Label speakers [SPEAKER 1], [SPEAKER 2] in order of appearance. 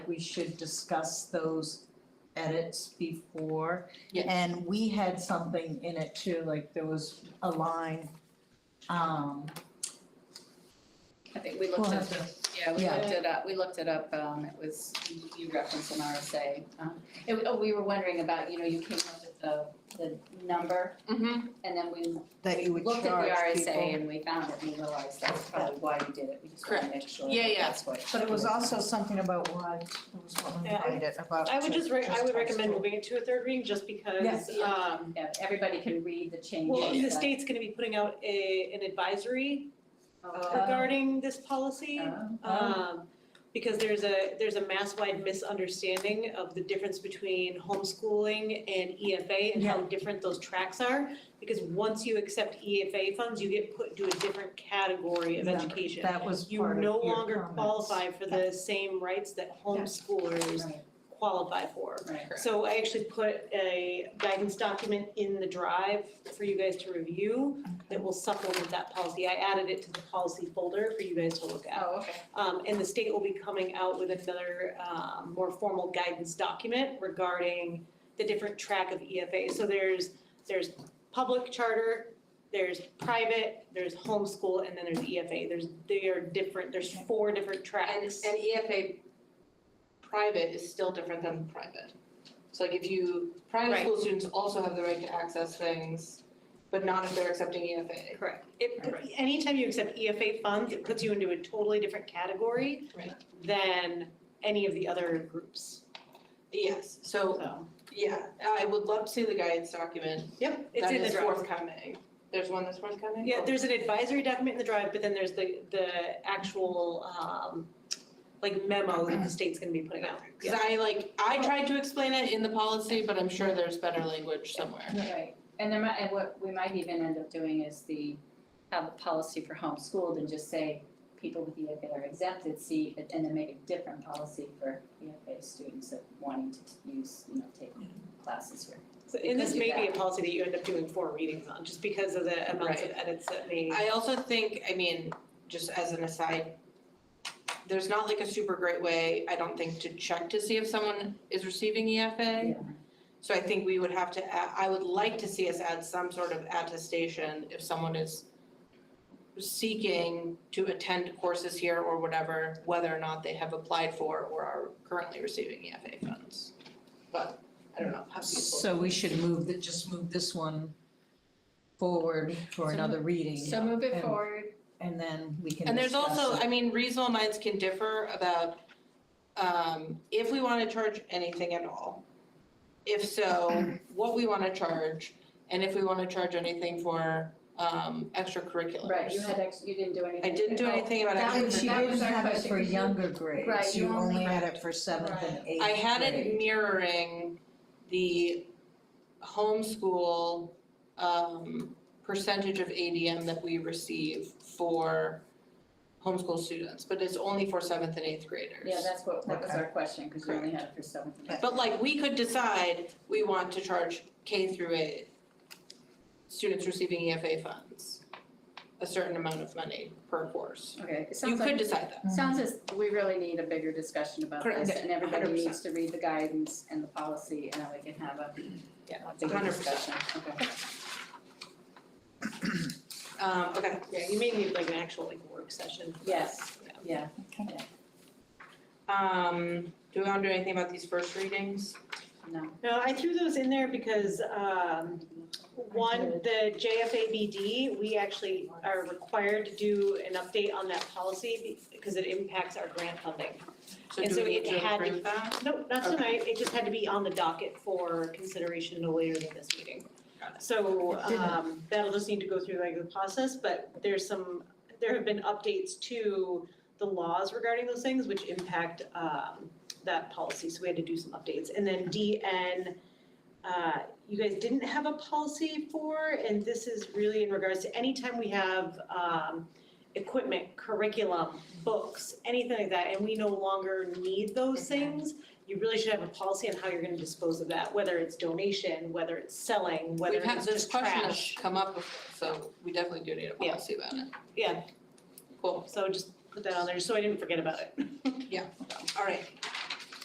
[SPEAKER 1] we should discuss those edits before.
[SPEAKER 2] Yes.
[SPEAKER 1] And we had something in it too, like there was a line, um,
[SPEAKER 2] I think we
[SPEAKER 1] We'll
[SPEAKER 2] looked at
[SPEAKER 1] have
[SPEAKER 2] the, yeah, we
[SPEAKER 1] yeah.
[SPEAKER 2] looked it up, we looked it up, um, it was, you- you referenced an RSA. Um, It, oh, we were wondering about, you know, you came up with the, the number,
[SPEAKER 3] Mm-hmm.
[SPEAKER 2] and then we,
[SPEAKER 4] that you
[SPEAKER 2] we
[SPEAKER 4] would
[SPEAKER 2] looked at
[SPEAKER 4] charge
[SPEAKER 2] the
[SPEAKER 4] people.
[SPEAKER 2] RSA and we found it, and we realized that's probably why you did it, we just wanted to make sure
[SPEAKER 3] Yeah,
[SPEAKER 2] that
[SPEAKER 3] yeah.
[SPEAKER 2] that's what.
[SPEAKER 1] but it was also something about what, there was one
[SPEAKER 3] Yeah, I-
[SPEAKER 1] about it, about.
[SPEAKER 3] I would just, re- I would
[SPEAKER 1] high
[SPEAKER 3] recommend
[SPEAKER 1] school.
[SPEAKER 3] moving it to a third reading just because,
[SPEAKER 2] Yeah.
[SPEAKER 3] um,
[SPEAKER 2] Yeah, everybody can read the changes.
[SPEAKER 3] well, the
[SPEAKER 2] that-
[SPEAKER 3] state's gonna be putting out a, an advisory
[SPEAKER 2] Uh,
[SPEAKER 3] regarding this policy.
[SPEAKER 2] uh,
[SPEAKER 3] Um, because there's a, there's a mass-wide misunderstanding of the difference between homeschooling and EFA and how different those tracks are. Because once you accept EFA funds, you get put to a different category of
[SPEAKER 1] Yeah,
[SPEAKER 3] education.
[SPEAKER 1] That was
[SPEAKER 3] You
[SPEAKER 1] part of
[SPEAKER 3] no
[SPEAKER 1] your
[SPEAKER 3] longer
[SPEAKER 1] comments.
[SPEAKER 3] qualify for the same rights that homeschoolers
[SPEAKER 2] oh, Right,
[SPEAKER 3] qualify for.
[SPEAKER 2] right.
[SPEAKER 3] So I actually put a guidance document in the drive for you guys to review that will supplement that policy. I added it to the policy folder for you guys to look at.
[SPEAKER 2] Oh, okay.
[SPEAKER 3] Um, and the state will be coming out with another, um, more formal guidance document regarding the different track of EFA. So there's, there's public charter, there's private, there's homeschool, and then there's EFA. There's, they are different, there's four different
[SPEAKER 5] And, and
[SPEAKER 3] tracks.
[SPEAKER 5] EFA private is still different than private. So like if you, private
[SPEAKER 3] Right.
[SPEAKER 5] school students also have the right to access things, but not if they're accepting E EFA.
[SPEAKER 3] Correct. It, put- anytime you accept EFA funds, it puts you into a totally different category
[SPEAKER 5] Right.
[SPEAKER 3] than any of the other groups,
[SPEAKER 5] Yes, so,
[SPEAKER 3] so.
[SPEAKER 5] yeah, I would love to see the guidance document. Yep.
[SPEAKER 3] It's in the
[SPEAKER 5] That is
[SPEAKER 3] draft.
[SPEAKER 5] forthcoming. There's one that's forthcoming?
[SPEAKER 3] Yeah, there's an advisory document in the drive, but then there's the, the actual, um, like memo that the state's gonna be putting out.
[SPEAKER 5] Cause I like, I tried to explain it in the policy, but I'm sure there's better language somewhere.
[SPEAKER 2] Right, and there might, and what we might even end up doing is the, have a policy for homeschooled and just say people with EFA are exempted, see, and then make a different policy for EFA students that wanting to use, you know, take classes here.
[SPEAKER 3] So- And this
[SPEAKER 2] Could do
[SPEAKER 3] may be a
[SPEAKER 2] that.
[SPEAKER 3] policy that you end up doing four readings on, just because of the amounts of edits that may.
[SPEAKER 5] I also think, I mean, just as an aside, there's not like a super great way, I don't think, to check to see if someone is receiving EFA. So I think we would have to, a- I would like to see us add some sort of attestation if someone is seeking to attend courses here or whatever, whether or not they have applied for or are currently receiving EFA funds. But I don't know, how people.
[SPEAKER 1] So we should move the, just move this one forward for another reading,
[SPEAKER 2] So move
[SPEAKER 1] it
[SPEAKER 2] it forward.
[SPEAKER 1] and then we can
[SPEAKER 5] And there's
[SPEAKER 1] discuss
[SPEAKER 5] also,
[SPEAKER 1] it.
[SPEAKER 5] I mean, reasonable minds can differ about um if we wanna charge anything at all. If so, what we wanna charge and if we wanna charge anything for um extracurriculars.
[SPEAKER 2] Right, you had ex, you didn't do
[SPEAKER 5] I
[SPEAKER 2] anything.
[SPEAKER 5] didn't do anything about
[SPEAKER 2] That
[SPEAKER 1] And
[SPEAKER 2] was-
[SPEAKER 1] she
[SPEAKER 5] extracurriculars.
[SPEAKER 2] that was
[SPEAKER 1] didn't
[SPEAKER 2] our
[SPEAKER 1] have it
[SPEAKER 2] question,
[SPEAKER 1] for
[SPEAKER 2] 'cause you-
[SPEAKER 1] younger grades,
[SPEAKER 2] Right, you
[SPEAKER 1] you only
[SPEAKER 2] only
[SPEAKER 1] had it for seventh and eighth grade.
[SPEAKER 5] I had it mirroring the homeschool um percentage of ADM that we receive for homeschool students, but it's only for seventh and eighth graders.
[SPEAKER 2] Oh, Yeah, that's what, that was our question, because you only had it for seventh and eighth.
[SPEAKER 5] But like, we could decide we want to charge K through eight students receiving EFA funds, a certain amount of money per course.
[SPEAKER 2] Okay, it
[SPEAKER 5] You
[SPEAKER 2] sounds
[SPEAKER 5] could
[SPEAKER 2] like,
[SPEAKER 5] decide that.
[SPEAKER 2] sounds as, we really need a bigger discussion about
[SPEAKER 5] Correct,
[SPEAKER 2] this, and everybody
[SPEAKER 5] 100%.
[SPEAKER 2] needs to read the guidance and the policy, and then we can have a,
[SPEAKER 5] Yeah,
[SPEAKER 2] a bigger
[SPEAKER 5] 100%.
[SPEAKER 2] discussion, okay.
[SPEAKER 5] Um, okay,
[SPEAKER 3] Yeah, you may need like an actual like work session.
[SPEAKER 2] Yes, yeah,
[SPEAKER 5] um, do we wanna do anything about these first readings?
[SPEAKER 2] no.
[SPEAKER 3] No, I threw those in there because, um, one, the JFABD, we actually are required to do an update on that policy because it impacts our grant funding.
[SPEAKER 5] So
[SPEAKER 3] And
[SPEAKER 5] do
[SPEAKER 3] so
[SPEAKER 5] we need
[SPEAKER 3] it
[SPEAKER 5] to
[SPEAKER 3] had to-
[SPEAKER 5] approve that?
[SPEAKER 3] Nope, not
[SPEAKER 5] Okay.
[SPEAKER 3] tonight, it just had to be on the docket for consideration no later than this meeting.
[SPEAKER 5] Got
[SPEAKER 3] So, um, that'll just need to go through like the process, but there's some, there have been updates to the laws regarding those things which impact, um, that policy, so we had to do some updates. And then DN, uh, you guys didn't have a policy for, and this is really in regards to anytime we have, um, equipment, curriculum, books, anything like that, and we no longer need those things, you really should have a policy on how you're gonna dispose of that, whether it's donation, whether it's selling, whether
[SPEAKER 5] We've
[SPEAKER 3] it's
[SPEAKER 5] had, this
[SPEAKER 3] just
[SPEAKER 5] question has
[SPEAKER 3] trash.
[SPEAKER 5] come up before, so we definitely do need a
[SPEAKER 3] Yeah.
[SPEAKER 5] policy about it.
[SPEAKER 3] Yeah.
[SPEAKER 5] Cool,
[SPEAKER 3] So just put that on there, so I didn't forget about it.
[SPEAKER 5] all right.